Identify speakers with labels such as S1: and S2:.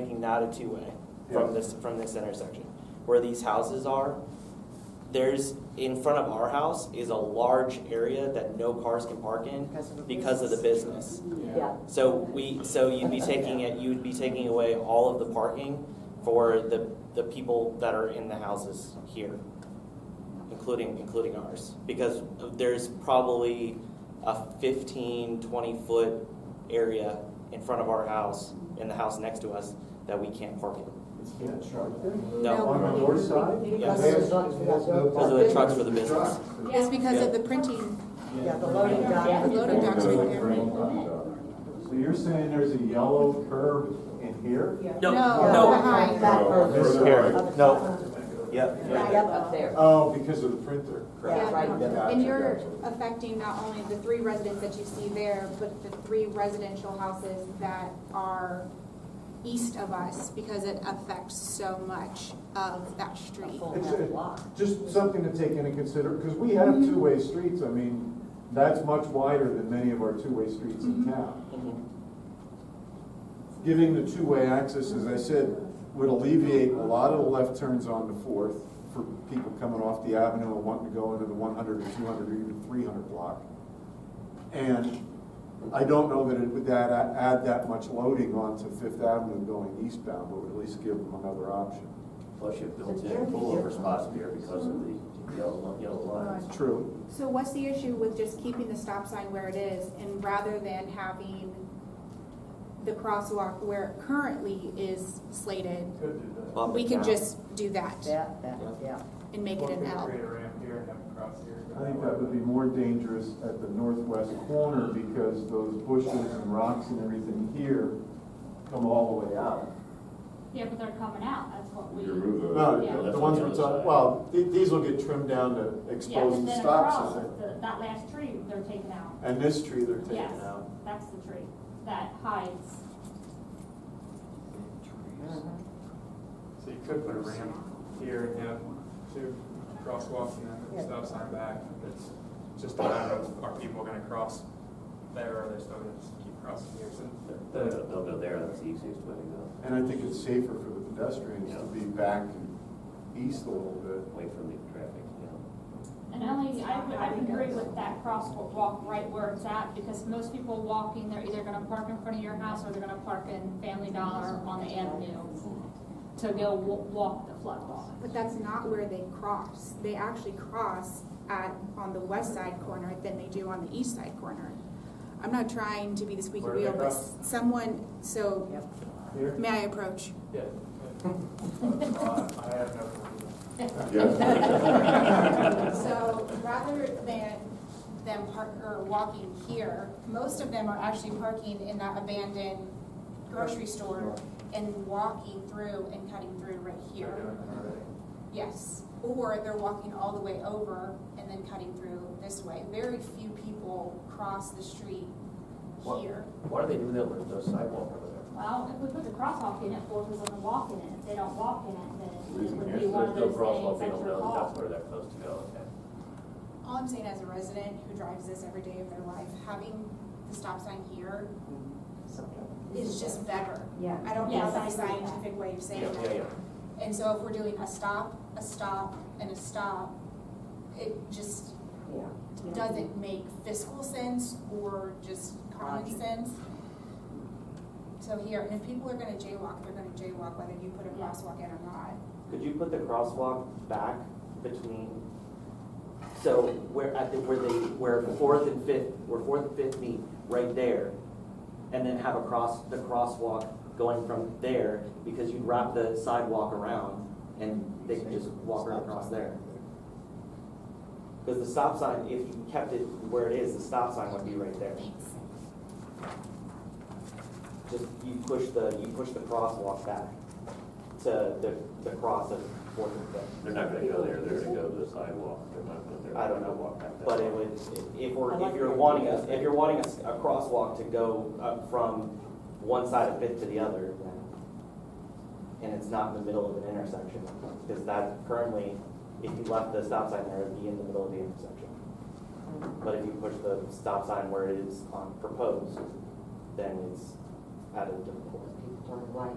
S1: making that a two-way from
S2: Yes.
S1: this, from this intersection. Where these houses are, there's, in front of our house is a large area that no cars can park in
S3: Because of the
S1: because of the business.
S3: Yeah.
S1: So we, so you'd be taking it, you'd be taking away all of the parking for the, the people that are in the houses here, including, including ours. Because there's probably a 15, 20-foot area in front of our house, in the house next to us, that we can't park in.
S2: It's constructed.
S1: No.
S2: On the north side?
S1: Yes.
S2: They have-
S1: Those are the trucks for the business.
S2: Trucks.
S4: It's because of the printing,
S3: Yeah, the loading dock.
S4: the loading docks right there.
S2: So you're saying there's a yellow curb in here?
S1: No,
S4: No,
S1: no,
S4: behind.
S2: This
S1: Here.
S2: side.
S1: no, yep,
S3: Yep, up there.
S2: Oh, because of the printer.
S3: Yeah, right.
S2: Gotcha,
S4: And you're
S2: gotcha.
S4: affecting not only the three residents that you see there, but the three residential houses that are east of us because it affects so much of that street.
S2: It's-
S3: uh,
S2: it- Just something to take into consider, because we have
S3: Mm-hmm.
S2: two-way streets, I mean, that's much wider than many of our two-way streets in
S3: Mm-hmm.
S2: town.
S1: Mhm.
S2: Giving the two-way access, as I said, would alleviate a lot of the left turns on the Fourth for people coming off the avenue and wanting to go into the one hundred or two hundred or even three hundred block. And I don't know that it would add, add that much loading onto Fifth Avenue going eastbound, but would at least give them another option.
S5: Plus you have built-in pullover spots here because of the yellow, yellow lines.
S2: True.
S4: So what's the issue with just keeping the stop sign where it is and rather than having the crosswalk where it currently is slated?
S1: Bump
S4: We
S1: it
S4: can
S1: down.
S4: just do that
S3: That, that, yeah.
S4: and make it an L.
S2: I think that would be more dangerous at the northwest corner because those bushes and rocks and everything here come all the way out.
S6: Yeah, but they're coming out, that's what we.
S7: You remove the.
S2: No,
S6: Yeah.
S2: the- the ones we're talking, well, th- these will get trimmed down to
S6: Yeah,
S2: expose
S6: and
S2: the
S6: then
S2: stop
S6: across,
S2: sign.
S6: the- that last tree, they're taking out.
S2: And this tree they're
S6: Yes,
S2: taking out.
S6: that's the tree that hides.
S3: Mm-hmm.
S8: So you could put a ramp here and have two crosswalks and then a stop sign back. It's just a matter of, are people gonna cross there or they're still gonna just keep crossing here? So
S5: They'll go- they'll go there, that's the easiest way to
S2: And I think it's safer for the pedestrians to be back east a little
S5: go,
S2: bit.
S5: away from the traffic, you know.
S6: And only, I would, I would agree with that crosswalk right where it's at, because most people walking, they're either gonna park in front of your house or they're gonna park in Family Dollar on the avenue to go wa- walk the floodwalk.
S4: But that's not where they cross. They actually cross at, on the west side corner than they do on the east side corner. I'm not trying to be the squeaky
S8: Where do they
S4: wheel, but
S8: cross?
S4: someone, so,
S3: Yep.
S8: Here?
S4: may I approach?
S8: Yeah. uh, I have no.
S4: So rather than them park, or walking here, most of them are actually parking in that abandoned grocery store and walking through and cutting through right here. Yes, or they're walking all the way over and then cutting through this way. Very few people cross the street
S5: What-
S4: here.
S5: Why do they do that with no sidewalk over there?
S6: Well, if we put the crosswalk in it, forces them to walk in it, if they don't walk in it, then it
S7: Reason
S6: would
S7: is
S6: be
S7: there's
S6: one
S5: There's
S6: of
S5: no
S6: those
S5: crosswalk,
S6: things
S5: they
S6: that
S5: don't
S6: you're
S5: know
S6: caught.
S5: that's where they're supposed to go, okay.
S4: All I'm saying as a resident who drives this every day of their life, having the stop sign here is just better.
S3: Yeah.
S4: I don't know
S6: Yes,
S4: the
S6: I agree with
S4: scientific way of
S5: Yeah,
S4: saying
S5: yeah,
S4: that.
S5: yeah.
S4: And so if we're doing a stop, a stop, and a stop, it just doesn't make fiscal sense or just common
S3: Logic.
S4: sense. So here, and if people are gonna jaywalk, they're gonna jaywalk whether you put a
S6: Yeah.
S4: crosswalk in or not.
S1: Could you put the crosswalk back between, so where, at the, where they, where fourth and fifth, where fourth and fifth meet, right there? And then have a cross, the crosswalk going from there, because you'd wrap the sidewalk around and they could just walk right across there. Because the stop sign, if you kept it where it is, the stop sign would be right there. Just, you push the, you push the crosswalk back to the, the cross of fourth and fifth.
S5: They're not gonna go there, they're gonna go to the sidewalk, they're not gonna, they're
S1: I
S5: not
S1: don't know
S5: gonna walk
S1: what,
S5: back that
S1: but it
S5: way.
S1: would, if we're,
S3: I like
S1: if you're
S3: your
S1: wanting,
S3: idea.
S1: a- if you're wanting a, s- a crosswalk to go up from one side of Fifth to the other, and it's not in the middle of an intersection, because that currently, if you left the stop sign there, it'd be in the middle of the intersection. But if you push the stop sign where it is on proposed, then it's at a different point.